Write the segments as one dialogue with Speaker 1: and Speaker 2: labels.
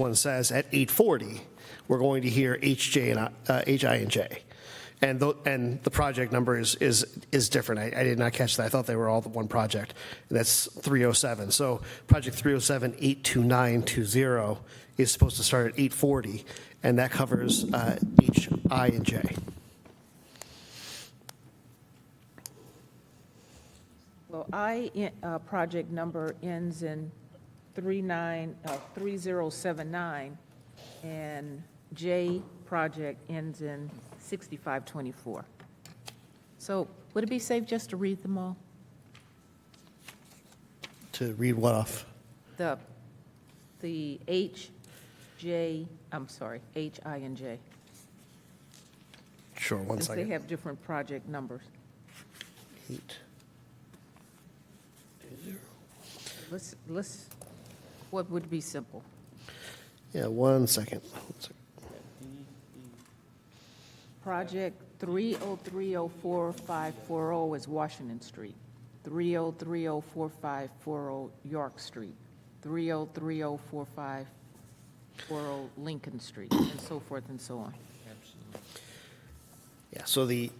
Speaker 1: one says at 8:40, we're going to hear HJ and, uh, HI and J. And the, and the project number is, is, is different. I, I did not catch that. I thought they were all the one project. And that's 307. So project 307, 82920 is supposed to start at 8:40, and that covers uh, H, I, and J.
Speaker 2: Well, I, uh, project number ends in 39, uh, 3079, and J project ends in 6524. So would it be safe just to read them all?
Speaker 1: To read what off?
Speaker 2: The, the H, J, I'm sorry, H, I, and J.
Speaker 1: Sure, one
Speaker 2: Since they
Speaker 1: second.
Speaker 2: have different project numbers.
Speaker 1: Eight.
Speaker 2: Let's, let's, what would be simple?
Speaker 1: Yeah, one second. One second.
Speaker 2: Project 303045540 is Washington Street. 303045540 York Street. 3030454 Lincoln Street, and so forth and so on.
Speaker 1: Yeah, so the,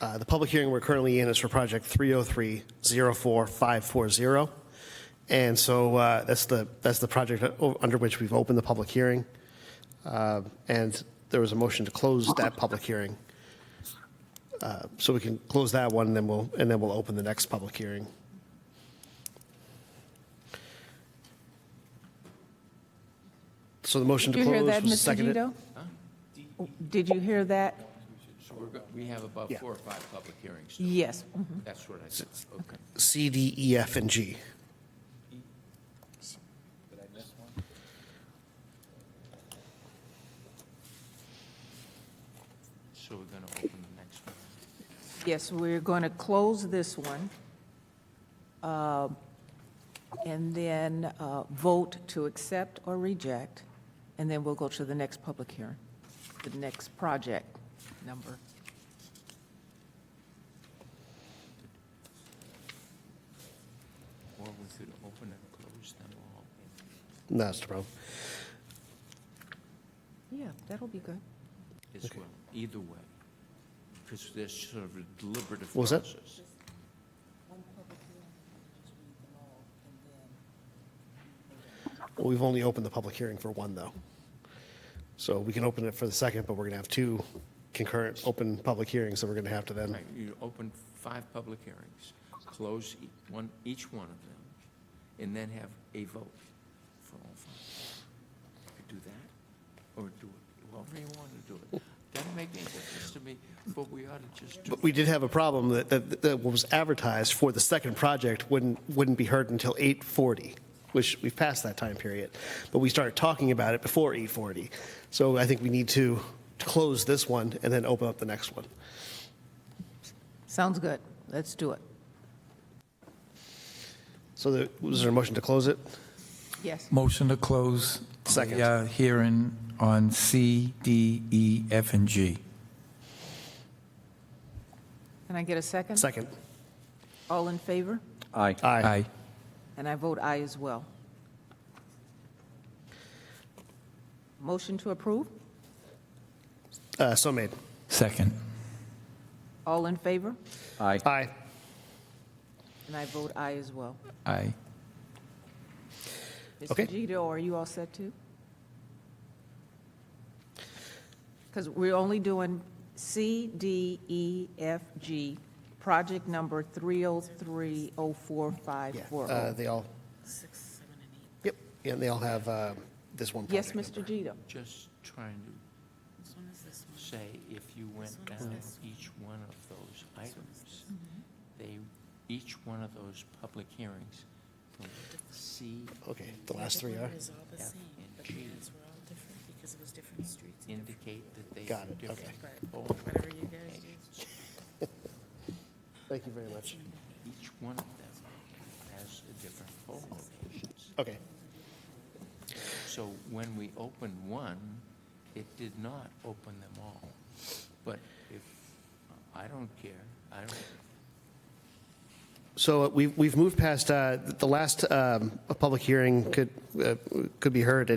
Speaker 1: uh, the public hearing we're currently in is for project 303-04540. And so uh, that's the, that's the project o- under which we've opened the public hearing. Uh, And there was a motion to close that public hearing. Uh, So we can close that one, and then we'll, and then we'll open the next public hearing. So the motion
Speaker 2: Did
Speaker 1: to
Speaker 2: you hear
Speaker 1: close
Speaker 2: that,
Speaker 1: was
Speaker 2: Mr.
Speaker 1: seconded.
Speaker 2: Gito? Did you hear that?
Speaker 3: So we're, go- we have about
Speaker 1: Yeah.
Speaker 3: four or five public hearings.
Speaker 2: Yes.
Speaker 3: That's what I said, okay.
Speaker 1: C, D, E, F, and G.
Speaker 3: So we're going to open the next one.
Speaker 2: Yes, we're going to close this one, um, and then uh, vote to accept or reject, and then we'll go to the next public hearing, the next project number.
Speaker 3: Or we could open and close them all.
Speaker 1: No, That's the problem.
Speaker 2: Yeah, that'll be good.
Speaker 3: as well, either way, because there's sort of a deliberative
Speaker 1: What was that?
Speaker 3: process.
Speaker 1: Well, We've only opened the public hearing for one, though. So we can open it for the second, but we're going to have two concurrent open public hearings that we're going to have to then,
Speaker 3: Right, you open five public hearings, close e- one, each one of them, and then have a vote for all five. You Could do that, or do it, however you want to do it. Doesn't make any difference to me, but we ought to just do
Speaker 1: but we did have a problem that, that, that what was advertised for the second project wouldn't, wouldn't be heard until 8:40, which we've passed that time period. But we started talking about it before 8:40. So I think we need to to close this one and then open up the next one.
Speaker 2: Sounds good. Let's do it.
Speaker 1: So there- was there a motion to close it?
Speaker 2: Yes.
Speaker 4: Motion to close.
Speaker 1: Second.
Speaker 4: the, uh, Hearing on C, D, E, F, and G.
Speaker 2: Can I get a second?
Speaker 1: Second.
Speaker 2: All in favor?
Speaker 5: Aye.
Speaker 1: Aye.
Speaker 2: And I vote aye as well. Motion to approve?
Speaker 1: Uh, So made.
Speaker 4: Second.
Speaker 2: All in favor?
Speaker 5: Aye.
Speaker 1: Aye.
Speaker 2: And I vote aye as well.
Speaker 4: Aye.
Speaker 1: Okay.
Speaker 2: Mr. Gito, are you all set too? Because we're only doing C, D, E, F, G, project number
Speaker 1: Yeah, uh,
Speaker 2: 3030454.
Speaker 1: they all. Yep, yeah, and they all have um, this one
Speaker 2: Yes,
Speaker 1: project.
Speaker 2: Mr. Gito?
Speaker 3: just trying to say, if you went down each one of those items, they, each one of those public hearings from C,
Speaker 1: Okay, the last three are?
Speaker 6: Everyone is all the
Speaker 3: F,
Speaker 6: same,
Speaker 3: and
Speaker 6: but
Speaker 3: G.
Speaker 6: the minutes were all different because it was different streets. and different-
Speaker 3: indicate that they
Speaker 1: Got
Speaker 3: were
Speaker 1: it,
Speaker 3: different.
Speaker 1: okay.
Speaker 3: Oh,
Speaker 6: Whatever you guys do.
Speaker 1: Thank you very much.
Speaker 3: Each one of them has a different poll locations.
Speaker 1: Okay,
Speaker 3: So when we opened one, it did not open them all. But if, I don't care, I don't,
Speaker 1: so uh, we've, we've moved past, uh, the last um, public hearing could, uh, could be heard